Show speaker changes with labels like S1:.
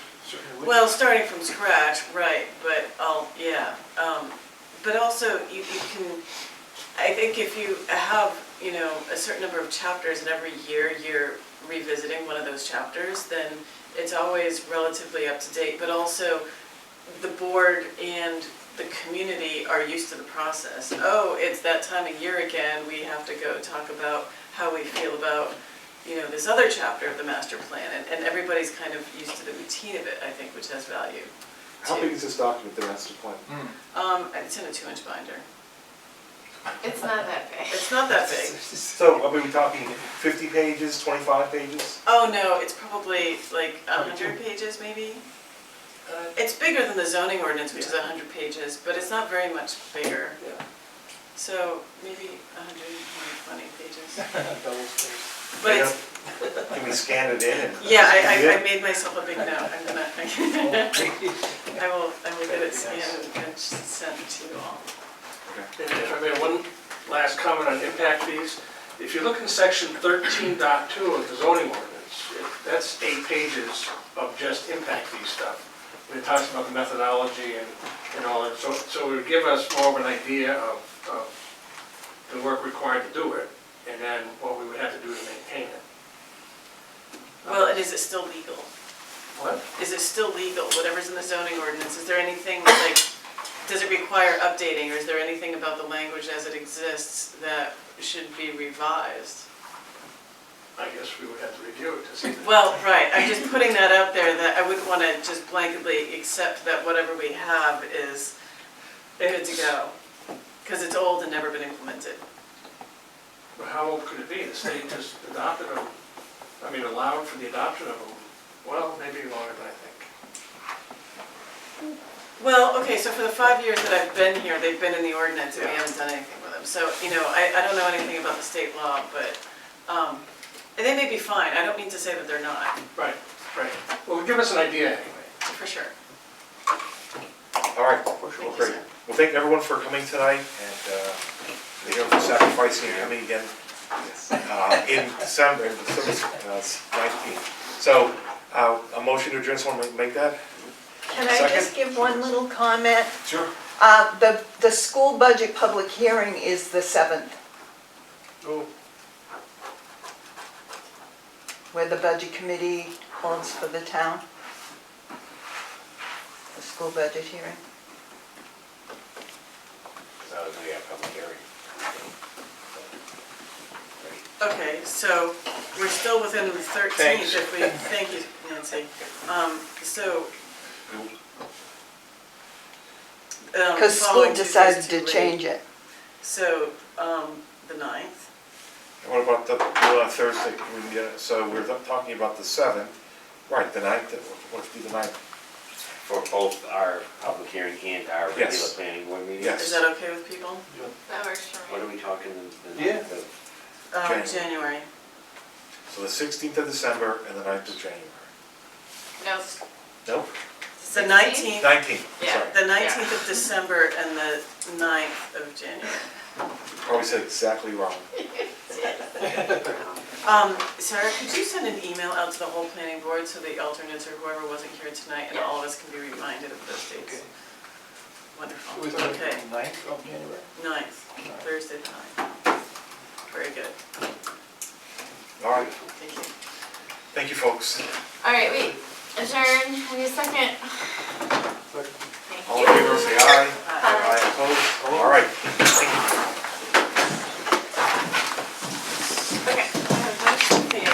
S1: Certainly.
S2: Well, starting from scratch, right, but I'll, yeah, um, but also you, you can, I think if you have, you know, a certain number of chapters and every year you're revisiting one of those chapters, then it's always relatively up to date, but also the board and the community are used to the process. Oh, it's that time of year again, we have to go talk about how we feel about, you know, this other chapter of the master plan, and, and everybody's kind of used to the routine of it, I think, which has value.
S3: How big is this document, the master plan?
S1: Hmm.
S2: Um, it's in a two-inch binder.
S4: It's not that big.
S2: It's not that big.
S3: So, are we talking fifty pages, twenty-five pages?
S2: Oh, no, it's probably like a hundred pages, maybe? It's bigger than the zoning ordinance, which is a hundred pages, but it's not very much bigger.
S3: Yeah.
S2: So maybe a hundred and twenty pages.
S1: Double spaced.
S2: But it's,
S3: Can we scan it in and?
S2: Yeah, I, I, I
S3: Yeah.
S2: made myself a big note, I'm gonna, I will, I will get it scanned and sent to you all.
S5: And if I may, one last comment on impact fees. If you look in section 13.2 of the zoning ordinance, it- that's eight pages of just impact fee stuff. And It talks about the methodology and, and all that, so, so it would give us more of an idea of, of the work required to do it, and then what we would have to do to maintain it.
S2: Well, and is it still legal?
S5: What?
S2: Is it still legal, whatever's in the zoning ordinance, is there anything like, does it require updating, or is there anything about the language as it exists that should be revised?
S5: I guess we would have to review it to see.
S2: Well, right, I'm just putting that out there, that I wouldn't wanna just blanketly accept that whatever we have is good to go, cause it's old and never been implemented.
S5: But how old could it be? The state just adopted them, I mean, allowed for the adoption of them, well, maybe longer than I think.
S2: Well, okay, so for the five years that I've been here, they've been in the ordinance, and we haven't done anything with them. So, you know, I, I don't know anything about the state law, but, um, and they may be fine, I don't mean to say that they're not,
S5: Right, right. Well, give us an idea anyway.
S2: for sure.
S3: All right, well, great. Well, thank everyone for coming tonight and, uh, thank everyone for sacrificing and coming again. Uh, in December, in December, uh, nineteenth. So, uh, a motion to adjourn, someone ma- make that?
S6: Can I just give one little comment?
S3: Sure.
S6: Uh, The, the school budget public hearing is the 7th, where the budget committee holds for the town. The school budget hearing.
S3: That was the public hearing.
S2: Okay, so we're still within the
S3: Thanks.
S2: thirteenth if we, thank you, Nancy. Um, so. um,
S6: Because
S2: following
S6: school
S2: Tuesday's
S6: decided
S2: too
S6: to
S2: late.
S6: change it.
S2: So, um, the ninth,
S3: What about the, well, on Thursday, we, uh, so we're talking about the seventh, right, the ninth, what if we do the ninth?
S7: For both our public hearing and our regular
S3: Yes.
S7: planning board meeting?
S3: Yes.
S2: is that okay with people?
S4: That works for
S7: What
S4: me.
S7: are we talking, the- the,
S1: Yeah.
S7: the
S2: Um,
S3: January.
S2: January.
S3: So the sixteenth of December and the ninth of January.
S4: No,
S3: Nope,
S2: The
S4: 16th?
S2: nineteenth,
S3: nineteenth,
S4: Yeah.
S3: sorry,
S2: The nineteenth of December and the 9th of January.
S3: probably said exactly wrong.
S2: Um, Sarah, could you send an email out to the whole planning board so the alternates or whoever wasn't here tonight and all of us can be reminded of those dates? Wonderful,
S1: Was it
S2: okay,
S1: the ninth of January?
S2: ninth, Thursday the ninth. Very good,
S3: All right,
S2: thank you.
S3: thank you, folks.
S4: All right, wait. Adjourn. I need a second.
S3: Uh,